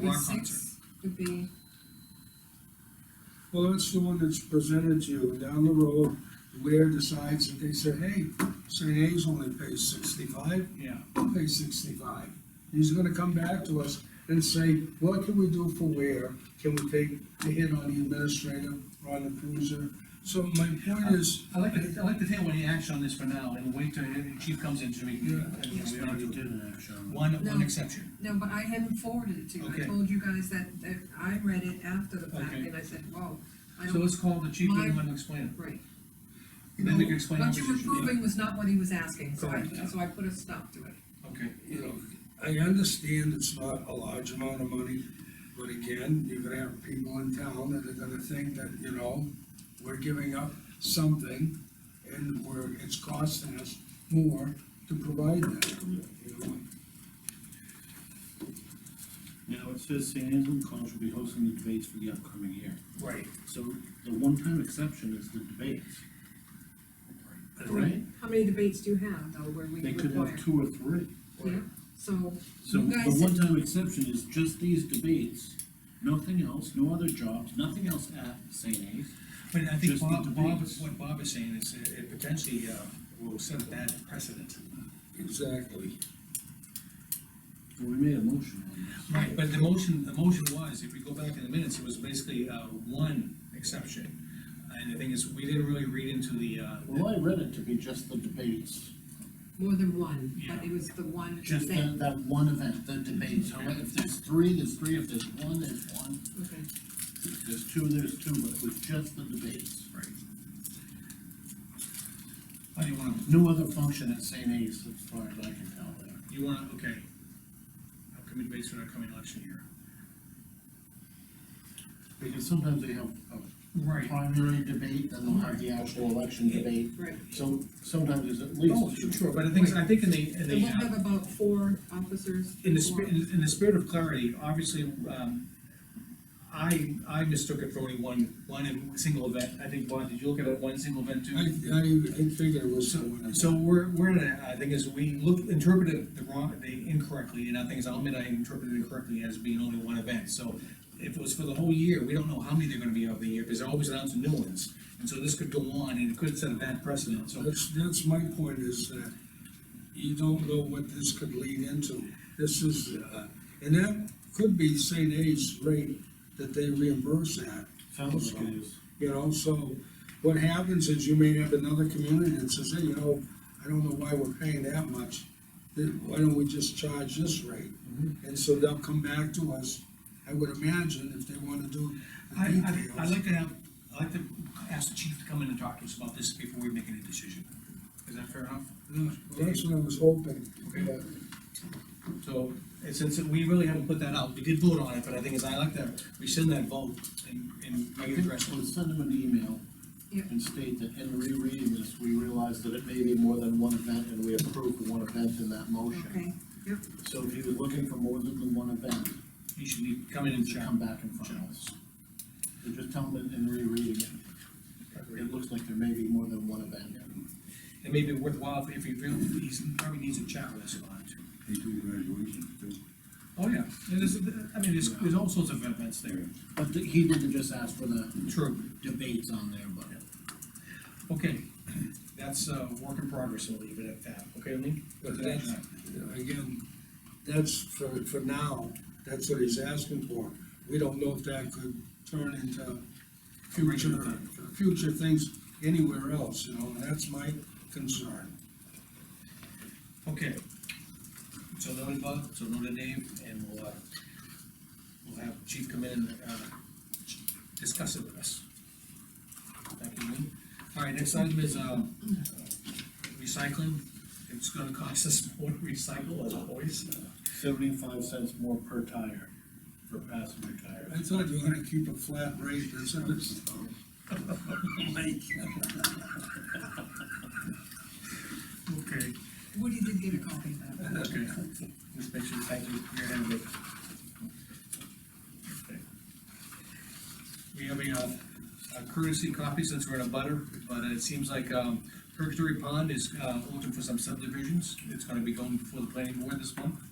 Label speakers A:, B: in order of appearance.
A: Be
B: Rock concert.
A: six would be,
B: Well, that's the one that's presented to you, and down the road, Ware decides that they said, hey, St. A's only pays sixty-five,
C: Yeah,
B: I'll pay sixty-five. He's gonna come back to us and say, what can we do for Ware? Can we take the hit on the administrator, or on the cruiser? So my point is,
C: I like to, I like to take any action on this for now and wait till the chief comes in to me.
B: Yeah.
D: We already did an action.
C: One, one
A: No.
C: exception.
A: no, but I hadn't forwarded it to you, I
C: Okay.
A: told you guys that, that I read it after the fact,
C: Okay.
A: and I said, whoa, I
C: So
A: don't,
C: let's call the chief and let him explain
A: right.
C: it. Then we can explain our
A: What you were
C: position.
A: proving was not what he was asking, so I,
C: Correct, yeah.
A: so I put a stop to it.
C: Okay.
B: you know, I understand it's not a large amount of money, but again, you're gonna have people in town that are gonna think that, you know, we're giving up something, and we're, it's costing us more to provide that, you know?
D: Now, it says St. Anselm College will be hosting the debates for the upcoming year.
B: Right.
D: So the one-time exception is the debates, right?
A: How many debates do you have, though, where we
D: They could
A: require?
D: have two or three.
A: Yeah, so,
D: So
A: You
D: the
A: guys-
D: one-time exception is just these debates, nothing else, no other jobs, nothing else at St. A's.
C: But I think
D: Just the
C: Bob, Bob,
D: debates.
C: what Bob is saying is it it potentially, uh, will set a bad precedent.
B: Exactly.
D: Well, We made a motion on this.
C: Right, but the motion, the motion was, if we go back in the minutes, it was basically, uh, one exception. And the thing is, we didn't really read into the, uh,
D: Well, I read it to be just the debates,
A: more than one,
C: Yeah.
A: but it was the one
D: just
A: thing,
D: that, that one event, the debates. How about If there's three, there's three, if there's one, there's one,
A: okay.
D: if there's two, there's two, but it was just the debates.
C: right. How do you wanna,
D: No other function at St. A's, as far as I can tell there.
C: you wanna, okay. Upcoming debates for the upcoming election year.
D: Because sometimes they have a
C: Right.
D: primary debate, then they'll have the actual election debate.
A: Right.
D: So sometimes there's at
C: Oh,
D: least
C: sure,
D: two.
C: sure, but I think, I think in the, in
A: So
C: the,
A: we'll
C: uh,
A: have about four officers.
C: in the
A: four-
C: spirit, in the spirit of clarity, obviously, um, I, I mistook it for only one, one single event. I think, Bob, did you look at it, one single event too?
B: I, I, I figure it was someone. else.
C: So we're, we're in a, I think is we look, interpreted the wrong, the incorrectly, and I think, is I'll admit I interpreted it correctly as being only one event, so if it was for the whole year, we don't know how many they're gonna be of the year, because they're always announcing new ones, and so this could go on, and it could set a bad precedent, so.
B: That's, that's my point is that you don't know what this could lead into. This is, uh, and that could be St. A's rate that they reimburse at.
D: Sounds like it is.
B: You know, so what happens is you may have another community that says, hey, you know, I don't know why we're paying that much. Then Why don't we just charge this rate?
C: Mm-hmm.
B: And so they'll come back to us, I would imagine, if they wanna do
C: I,
B: the
C: I, I'd
B: details.
C: like to have, I'd like to ask the chief to come in and talk to us about this before we make any decision, is that fair enough?
B: Yeah, well, That's what I was hoping,
C: Okay.
B: but
C: So, and since we really haven't put that out, we did vote on it, but I think is I like to rescind that vote and, and
D: I think
C: readdress
D: we'll
C: it.
D: send them an email
A: Yeah.
D: and state that in rereading this, we realize that it may be more than one event and we approve the one event in that motion.
A: Okay, yep,
D: So if he was looking for more than the one event,
C: He should be coming in and
D: he should come
C: chat.
D: back in front of us. So just tell him in- in rereading it, it looks like there may be more than one event.
C: It may be worthwhile if he really, he's, probably needs a chat with us about it.
E: They do graduation too.
C: Oh, yeah, and there's, I mean, there's, there's all sorts of events there.
D: But th- he didn't just ask for the
C: True.
D: debates on there, but.
C: Okay, that's, uh, work in progress, we'll leave it at that, okay, Lee?
B: But that's- you know, again, that's for, for now, that's what he's asking for. We don't know if that could turn into
C: Regular
B: future,
C: thing.
B: future things anywhere else, you know, and that's my concern.
C: Okay. So noted, Bob, so noted, Dave, and we'll, uh, we'll have Chief come in and, uh, discuss it with us. Thank you, Lee. All right, next item is, um, recycling. It's gonna cost us more to recycle, as always.
D: Seventy-five cents more per tire for passenger
B: I
D: tires.
B: thought you were gonna keep a flat rate, that's what it's, like,
C: Okay.
A: Woody did get a copy of that.
C: Okay, just make sure, thank you, you're handling it. Okay. We have a, uh, a courtesy copy since we're in a butter, but it seems like, um, Purgatory Pond is, uh, looking for some subdivisions. It's gonna be going before the planning board this month.